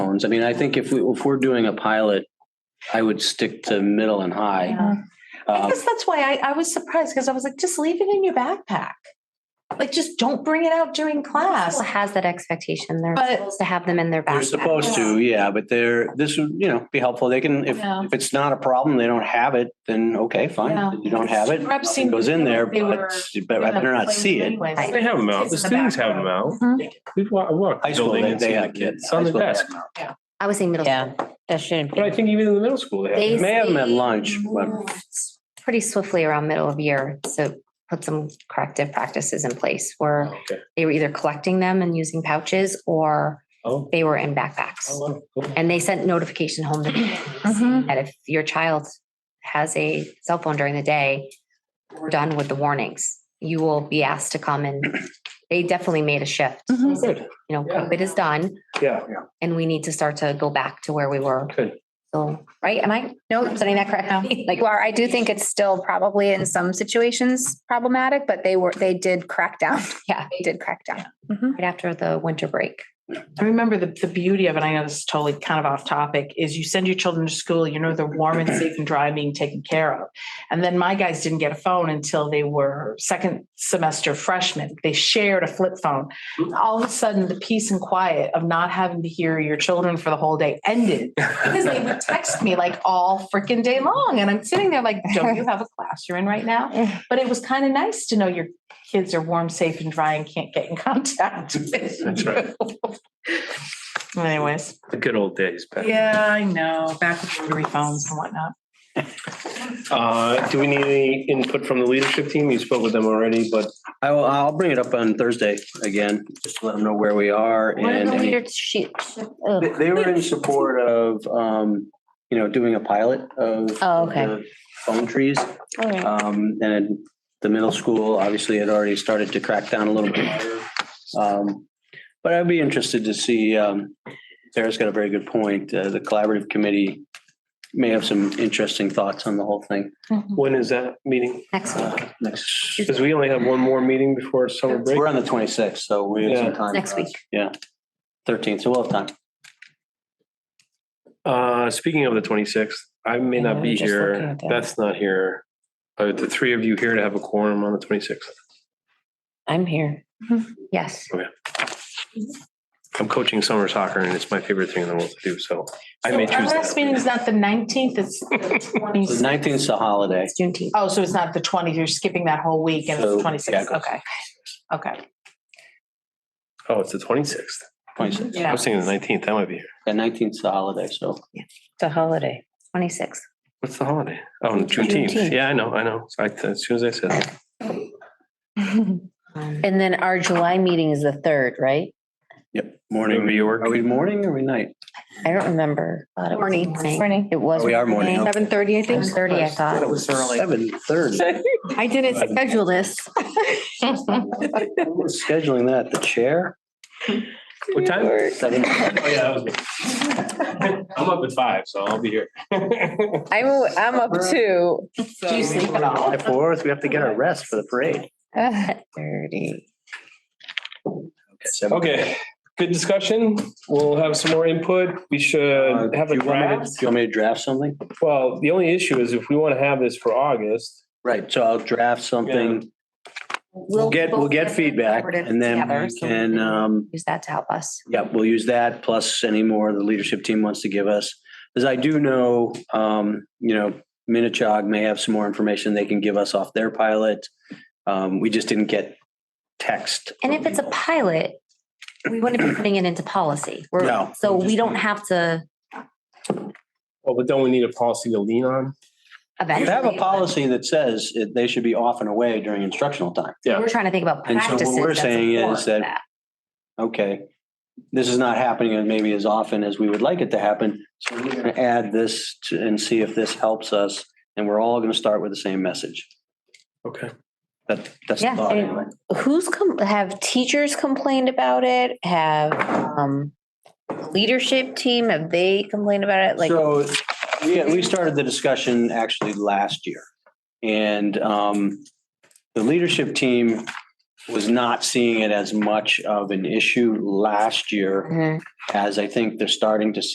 zones. I mean, I think if we, if we're doing a pilot, I would stick to middle and high. Yeah. I Um, guess that's why I, I was surprised because I was like, just leave it in your backpack. Like, just don't bring it out during class. School has that expectation. They're But- supposed to have them in their backpack. You're supposed to, yeah, but they're, this would, you know, be helpful. They can, if, Yeah. if it's not a problem, they don't have it, then okay, Yeah. fine. You don't have it, Perhaps nothing goes in there, they were- but, but I better not see it. Anyways. They have them out. The Kids in the students back have them out. Mm-hmm. We've wa- I walked. the High school, building they and they seen the have kids. It's on High the school, they have desk. them. I was saying middle Yeah, school, that shouldn't But I be. think even in the middle school, they have. They It May have them at say lunch, but pretty swiftly around middle of year. So put some corrective practices in place where Oh, Okay. they were either collecting them and using pouches or Oh. they were in backpacks. oh, wow, cool. And they sent notification home to parents Mhm. that if your child has a cell phone during the day, we're done with the warnings. You will be asked to come and they definitely made a shift. Mhm. Good. You know, Yeah. COVID is done Yeah. and we need to start to go back to where we were. Good. So, right? Am I, no, I'm saying that correctly? Like, well, I do think it's still probably in some situations problematic, but they were, they did crack down. Yeah. They did crack down. right after the winter break. I remember the, the beauty of it, I know this is totally kind of off topic, is you send your children to school, you know, they're warm and safe and dry, being taken care of. And then my guys didn't get a phone until they were second semester freshmen. They shared a flip phone. All of a sudden, the peace and quiet of not having to hear your children for the whole day ended because they would text me like all freaking day long. And I'm sitting there like, don't you have a class you're in right now? But it was kind of nice to know your kids are warm, safe, and dry and can't get in contact. That's right. Anyways. The good old days. back. Yeah, I know. Back with rotary phones and whatnot. Uh, do we need any input from the leadership team? You spoke with them already, but Mm-hmm. I will, I'll bring it up on Thursday again, just to let them know where we are What are and. the any- leadership? They oh, they were in support of, um, you know, doing a pilot of. Oh, okay. the Phone trees. All right. Um, and the middle school obviously had already started to crack down a little bit. harder. Um, but I'd be interested to see, um, Sarah's got a very good point. Uh, the collaborative committee may have some interesting thoughts on the whole thing. uh, when is that meeting? Next week, Next, Because we only have one more meeting before summer break. we're on the twenty-sixth, so we have some time. uh, next week. Yeah. Thirteenth, so we'll have time. Uh, speaking of the twenty-sixth, I may Yeah, not I'm be just looking here. at that. That's not here. Are the three of you here to have a quorum on the twenty-sixth? I'm here. Mm-hmm. Yes. I'm coaching summer soccer and it's my favorite thing in the world to do, so I may So Our choose last meeting that. is not the nineteenth, it's the twenty. The nineteenth is a holiday. It's Juneteenth. Oh, so it's not the twentieth. You're skipping that whole week and it's So, the yeah, twenty-sixth. go- Okay. Okay. Oh, it's the twenty-sixth. Twenty-sixth, I Yeah. was thinking the nineteenth, that might be here. the nineteenth is a holiday, so. It's a holiday. Twenty-six. What's the holiday? Oh, Juneteenth. Juneteenth. Yeah, I know, I know. I, as soon as I said that. Um, And then our July meeting is the third, right? Yep. Morning, New York. Are we morning or are we night? I don't remember. thought Uh, it was Morning. morning. Morning. It was. Oh, we are morning, okay. Seven thirty, I Six thirty, I thought. was Seven thirty. I didn't schedule this. We're Scheduling that, the chair? What time? Oh, Seven. yeah, that was me. I'm up at five, so I'll be here. I'm, I'm up too. Do you sleep at all? July fourth, we have to get our rest for the parade. Thirty. Seven- Okay, good discussion. We'll have some more input. We Uh, should do have a you want me to- draft. Do you want me to draft something? Well, the only issue is if we want to have this for August, Right, so I'll draft something. We'll get, we'll get feedback and then Together, we so can, um, Use that to help us. yeah, we'll use that plus any more the leadership team wants to give us. As I do know, um, you know, Minichog may have some more information they can give us off their pilot. Um, we just didn't get text. And if it's a pilot, we wouldn't be putting it into policy. We're- No. So we don't have to well, but don't we need a policy to lean on? You eventually. have a policy that says it- they should be off and away during instructional time. We're trying to think about And so what practices. we're that's saying is informed that- okay, this is not happening and maybe as often as we would like it to happen. So we're going to add this to- and see if this helps us. And we're all going to start with the same message. Okay. That, that's the Yeah, thought and- anyway. Who's come, have teachers complained about it? Have, um, leadership team, have they complained about it? Like, So we, we started the discussion actually last year. And um, the leadership team was not seeing it as much of an issue last year as I think they're starting to see.